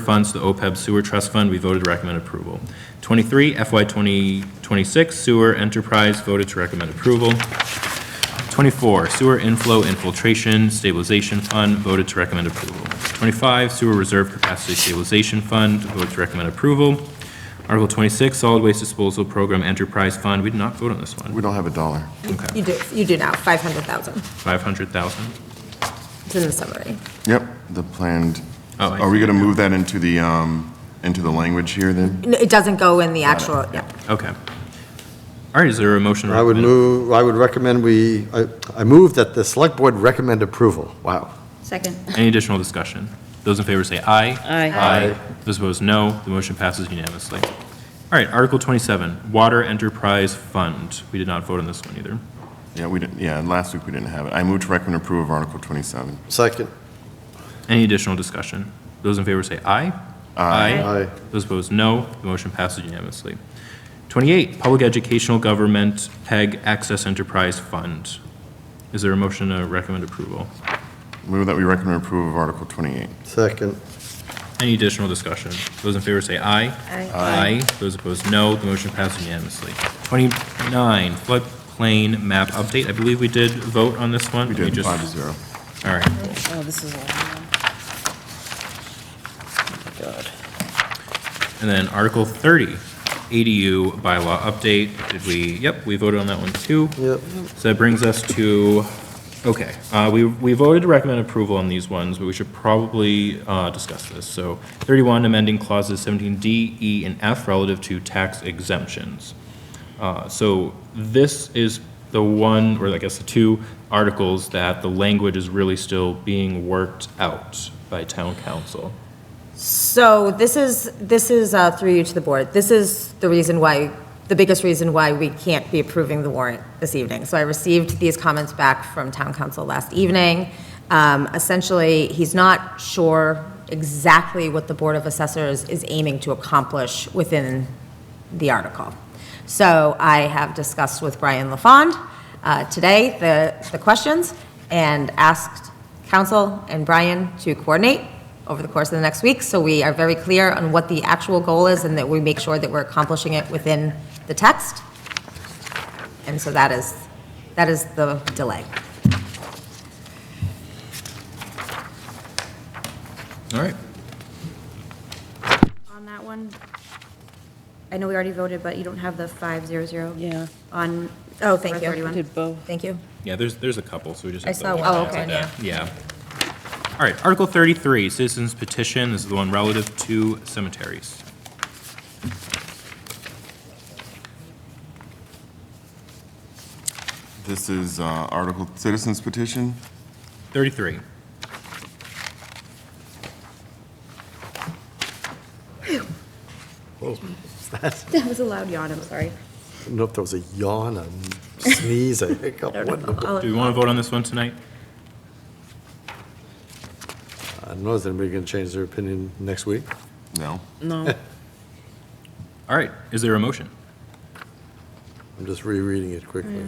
funds to the OPEB Sewer Trust Fund, we voted to recommend approval. 23, FY 2026 Sewer Enterprise, voted to recommend approval. 24, Sewer Inflow Infiltration Stabilization Fund, voted to recommend approval. 25, Sewer Reserve Capacity Stabilization Fund, voted to recommend approval. Article 26, Solid Waste Disposal Program Enterprise Fund, we did not vote on this one. We don't have a dollar. Okay, You do, you do now, 500,000. 500,000. It's in the summary. Yep, the planned, Oh, I are we see. going to move that into the, um, into the language here then? No, It doesn't go in the actual, yeah. Okay. All right, is there a motion? to I would recommend? move, I would recommend we, I I move that the select board recommend approval. Wow. Second. Any additional discussion? Those in favor say aye. Aye. Aye. Those opposed, no. The motion passes unanimously. All right, Article 27, Water Enterprise Fund. We did not vote on this one either. Yeah, we didn't, yeah, last week we didn't have it. I move to recommend approval of Article 27. Second. Any additional discussion? Those in favor say aye. Aye. Those opposed, no. The motion passes unanimously. 28, Public Educational Government PEG Access Enterprise Fund. Is there a motion to recommend approval? Move that we recommend approval of Article 28. Second. Any additional discussion? Those in favor say aye. Aye. Aye. Those opposed, no. The motion passes unanimously. 29, floodplain map update. I believe we did vote on this one. We Let me did, just- five to zero. All right. Oh, this is a long one. Oh, my God. And then Article 30, ADU bylaw update. Did we, yep, we voted on that one too. Yep. So that brings us to, okay, uh, we, we voted to recommend approval on these ones, but we should probably uh, discuss this. So 31, amending clauses 17D, E, and F relative to tax exemptions. Uh, So this is the one, or I guess the two articles that the language is really still being worked out by town council. So this is, this is, uh, through you to the board, this is the reason why, the biggest reason why we can't be approving the warrant this evening. So I received these comments back from town council last evening. Um, Essentially, he's not sure exactly what the Board of Assessors is aiming to accomplish within the article. So I have discussed with Brian LaFond uh, today the, the questions and asked council and Brian to coordinate over the course of the next week, so we are very clear on what the actual goal is and that we make sure that we're accomplishing it within the text. And so that is, that is the delay. All right. On that one, I know we already voted, but you don't have the 500. Yeah. On. Oh, thank you. 31. Did both. Thank you. Yeah, there's, there's a couple, so we just. I have to saw look one. Oh, at okay. that. Yeah. All right, Article 33, citizens petition, this is the one relative to cemeteries. This is uh, Article, citizens petition? 33. That was a loud yawn, I'm sorry. I don't know if there was a yawn, a sneeze, a hiccup. I what- don't know. Oh, Do we I'll- uh, want to vote on this one tonight? I don't know, is anybody going to change their opinion next week? No? No. All right, is there a motion? I'm just rereading it quickly.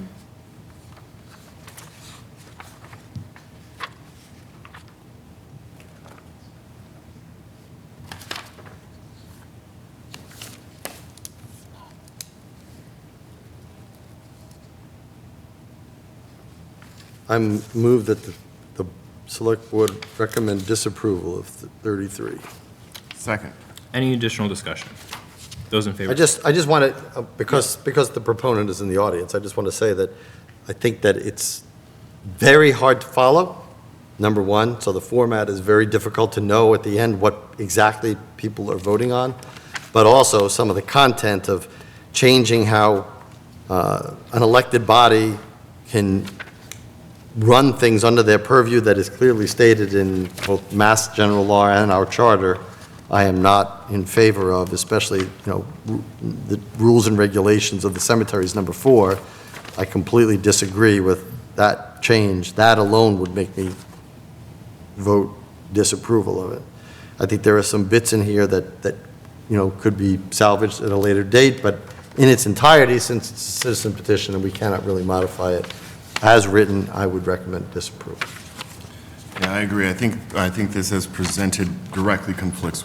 I'm moved that the, the select board recommend disapproval of the 33. Second. Any additional discussion? Those in favor? I just, I just want to, because, because the proponent is in the audience, I just want to say that I think that it's very hard to follow, number one, so the format is very difficult to know at the end what exactly people are voting on, but also some of the content of changing how uh, an elected body can run things under their purview that is clearly stated in both Mass General Law and our charter, I am not in favor of, especially, you know, ru- the rules and regulations of the cemeteries, number four. I completely disagree with that change. That alone would make me vote disapproval of it. I think there are some bits in here that, that, you know, could be salvaged at a later date, but in its entirety, since it's a citizen petition and we cannot really modify it, as written, I would recommend disapproval. Yeah, I agree. I think, I think this as presented directly conflicts